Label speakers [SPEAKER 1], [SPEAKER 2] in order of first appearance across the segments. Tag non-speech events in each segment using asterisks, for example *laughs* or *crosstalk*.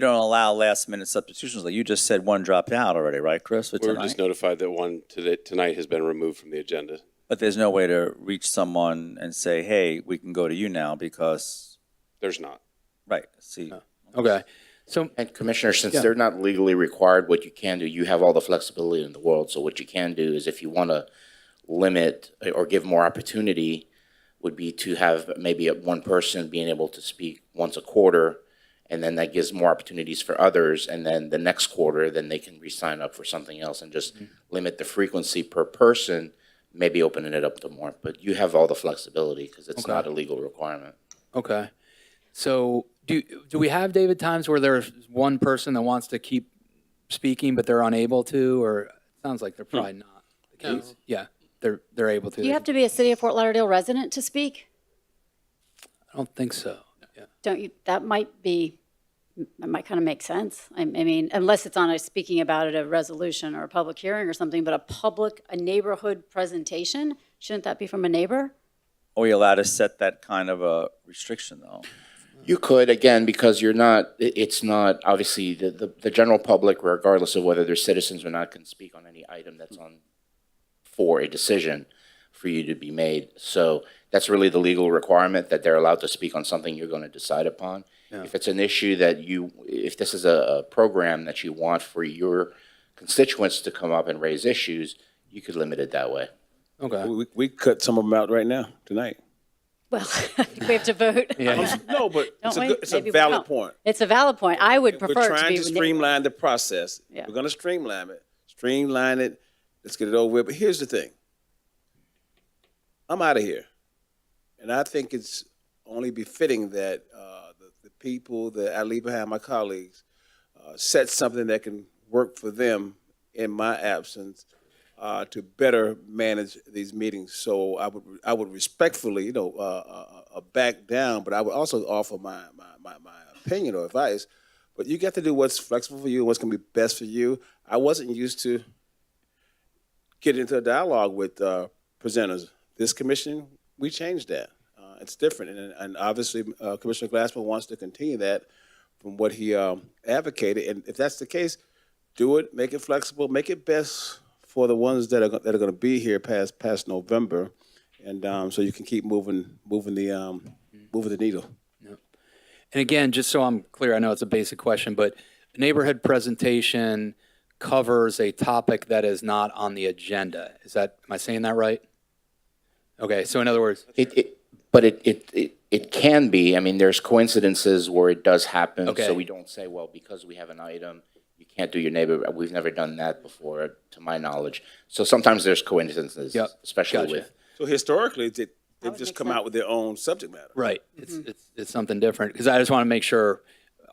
[SPEAKER 1] You don't allow last minute substitutions. Like you just said, one dropped out already, right, Chris? for
[SPEAKER 2] We were
[SPEAKER 1] tonight?
[SPEAKER 2] just notified that one today, tonight has been removed from the agenda.
[SPEAKER 1] But there's no way to reach someone and say, hey, we can go to you now because,
[SPEAKER 2] There's not.
[SPEAKER 1] right, see.
[SPEAKER 3] Okay. So,
[SPEAKER 4] And Commissioner, since they're not legally required, what you can do, you have all the flexibility in the world. So what you can do is if you want to limit eh, or give more opportunity would be to have maybe one person being able to speak once a quarter. And then that gives more opportunities for others. And then the next quarter, then they can re-sign up for something else and
[SPEAKER 3] Mm-hmm.
[SPEAKER 4] just limit the frequency per person, maybe opening it up to more. But you have all the flexibility because it's
[SPEAKER 3] Okay.
[SPEAKER 4] not a legal requirement.
[SPEAKER 3] okay. So do, do we have, David, times where there's one person that wants to keep speaking, but they're unable to, or it sounds like they're probably not the case? Yeah, they're, they're able to.
[SPEAKER 5] You have to be a City of Fort Lauderdale resident to speak?
[SPEAKER 3] I don't think so. Yeah.
[SPEAKER 5] Don't you, that might be, that might kind of make sense. I I mean, unless it's on a speaking about it, a resolution or a public hearing or something, but a public, a neighborhood presentation, shouldn't that be from a neighbor?
[SPEAKER 1] Are we allowed to set that kind of a restriction though?
[SPEAKER 4] You could, again, because you're not, i- it's not, obviously, the, the, the general public, regardless of whether they're citizens or not, can speak on any item that's on, for a decision for you to be made. So that's really the legal requirement, that they're allowed to speak on something you're going to decide upon. If it's an issue that you, if this is a, a program that you want for your constituents to come up and raise issues, you could limit it that way.
[SPEAKER 3] Okay.
[SPEAKER 6] We, we cut some of them out right now, tonight.
[SPEAKER 5] Well, *laughs* I think we have to vote.
[SPEAKER 6] *laughs* No, but it's
[SPEAKER 5] Don't
[SPEAKER 6] a,
[SPEAKER 5] we?
[SPEAKER 6] good- it's a
[SPEAKER 5] Maybe we
[SPEAKER 6] valid
[SPEAKER 5] don't.
[SPEAKER 6] point.
[SPEAKER 5] It's a valid point. I would
[SPEAKER 6] We're
[SPEAKER 5] prefer it to
[SPEAKER 6] trying to
[SPEAKER 5] be. neighbor.
[SPEAKER 6] streamline the process.
[SPEAKER 5] Yeah.
[SPEAKER 6] We're gonna streamline it, streamline it, let's get it over with. But here's the thing. I'm out of here. And I think it's only befitting that, uh, the, the people that I leave behind, my colleagues, uh, set something that can work for them in my absence, uh, to better manage these meetings. So I would, I would respectfully, you know, uh, uh, uh, back down, but I would also offer my, my, my, my opinion or advice. But you got to do what's flexible for you, what's going to be best for you. I wasn't used to getting into a dialogue with uh, presenters. This commission, we changed that. Uh, it's different, and, and obviously uh, Commissioner Glassman wants to continue that from what he um, advocated. And if that's the case, do it, make it flexible, make it best for the ones that are go- that are going to be here past past November, and um, so you can keep moving moving the um, moving the needle.
[SPEAKER 3] And again, just so I'm clear, I know it's a basic question, but a neighborhood presentation covers a topic that is not on the agenda. Is that, am I saying that right? Okay, so in other words,
[SPEAKER 4] It, it, but it, it, it, it can be, I mean, there's coincidences where it does happen.
[SPEAKER 3] Okay.
[SPEAKER 4] So we don't say, well, because we have an item, you can't do your neighbor, we've never done that before, to my knowledge. So sometimes there's coincidences,
[SPEAKER 3] Yep.
[SPEAKER 4] especially
[SPEAKER 3] Gotcha.
[SPEAKER 4] with.
[SPEAKER 6] So historically, they, they've
[SPEAKER 5] would
[SPEAKER 6] just
[SPEAKER 5] make
[SPEAKER 6] come
[SPEAKER 5] sense.
[SPEAKER 6] out with their own subject matter.
[SPEAKER 3] Right. It's, it's, it's something different because I just want to make sure,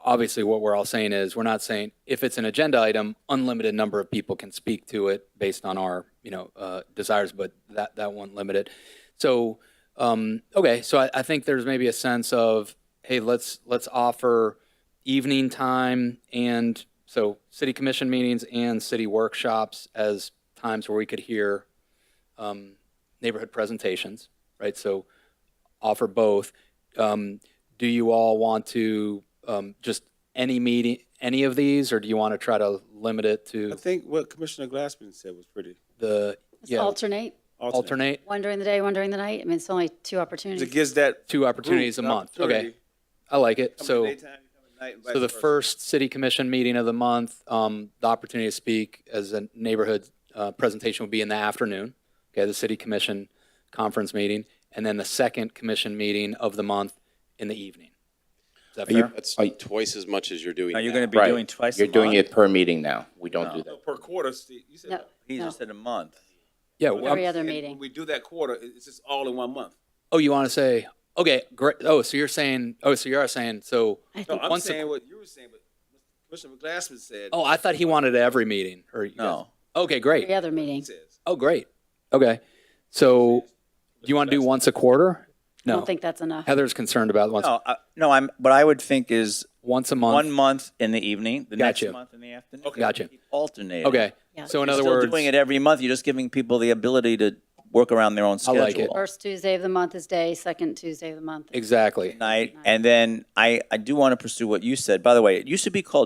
[SPEAKER 3] obviously, what we're all saying is we're not saying if it's an agenda item, unlimited number of people can speak to it based on our, you know, uh, desires, but that, that won't limit it. So, um, okay, so I, I think there's maybe a sense of, hey, let's, let's offer evening time and so city commission meetings and city workshops as times where we could hear um, neighborhood presentations, right? So offer both. Um, do you all want to um, just any meeting, any of these, or do you want to try to limit it
[SPEAKER 6] I
[SPEAKER 3] to
[SPEAKER 6] think what Commissioner Glassman said was pretty
[SPEAKER 3] the
[SPEAKER 5] Just
[SPEAKER 3] yeah,
[SPEAKER 5] Alternate,
[SPEAKER 3] alternate
[SPEAKER 5] one during the day, one during the night. I mean, it's only two
[SPEAKER 6] It
[SPEAKER 5] opportunities.
[SPEAKER 6] gives that
[SPEAKER 3] two opportunities a
[SPEAKER 6] group an
[SPEAKER 3] month?
[SPEAKER 6] opportunity.
[SPEAKER 3] Okay, I like it.
[SPEAKER 6] Come in
[SPEAKER 3] So,
[SPEAKER 6] the daytime, you come at night, and vice
[SPEAKER 3] so the
[SPEAKER 6] versa.
[SPEAKER 3] first city commission meeting of the month, um, the opportunity to speak as a neighborhood uh, presentation would be in the afternoon. Okay, the city commission conference meeting, and then the second commission meeting of the month in the evening. Is that fair?
[SPEAKER 2] That's
[SPEAKER 4] I-
[SPEAKER 2] twice as much as you're doing
[SPEAKER 1] Now, you're
[SPEAKER 2] now.
[SPEAKER 1] going to be
[SPEAKER 4] Right.
[SPEAKER 1] doing twice a Oh.
[SPEAKER 4] You're
[SPEAKER 1] month?
[SPEAKER 4] doing it per meeting now. We don't do that.
[SPEAKER 6] per quarter. Steve, You said
[SPEAKER 5] No,
[SPEAKER 6] that.
[SPEAKER 1] He
[SPEAKER 5] no.
[SPEAKER 1] just said a month.
[SPEAKER 3] yeah. well, I'm-
[SPEAKER 5] Every other
[SPEAKER 6] And
[SPEAKER 5] meeting.
[SPEAKER 6] When we do that quarter, it- it's just all in one month.
[SPEAKER 3] Oh, you want to say, okay, great. Oh, so you're saying, oh, so you are saying, so,
[SPEAKER 5] I
[SPEAKER 6] No,
[SPEAKER 5] think
[SPEAKER 6] I'm
[SPEAKER 3] Once a-
[SPEAKER 6] saying what you were saying, but Commissioner Glassman said.
[SPEAKER 3] oh, I thought he wanted it every meeting or you guys-
[SPEAKER 1] No.
[SPEAKER 3] Okay, great.
[SPEAKER 5] every other meeting,
[SPEAKER 6] says.
[SPEAKER 3] Oh, great. Okay. So do you want to do once a quarter?
[SPEAKER 5] I don't
[SPEAKER 3] No.
[SPEAKER 5] think that's enough.
[SPEAKER 3] Heather's concerned about once,
[SPEAKER 1] No, I, no, I'm, what I would think is
[SPEAKER 3] once a
[SPEAKER 1] one
[SPEAKER 3] month.
[SPEAKER 1] month in the evening, the next
[SPEAKER 3] Gotcha.
[SPEAKER 1] month in the afternoon.
[SPEAKER 6] Okay.
[SPEAKER 3] Gotcha.
[SPEAKER 1] Alternating.
[SPEAKER 3] Okay.
[SPEAKER 5] Yeah.
[SPEAKER 3] So in
[SPEAKER 1] You're
[SPEAKER 3] other
[SPEAKER 1] still
[SPEAKER 3] words,
[SPEAKER 1] doing it every month. You're just giving people the ability to work around their own
[SPEAKER 3] I
[SPEAKER 1] schedule.
[SPEAKER 3] like it.
[SPEAKER 5] First Tuesday of the month is day, second Tuesday of the month. is-
[SPEAKER 3] Exactly.
[SPEAKER 1] Night, and then I, I do want to pursue what you said. By the way, it used to be called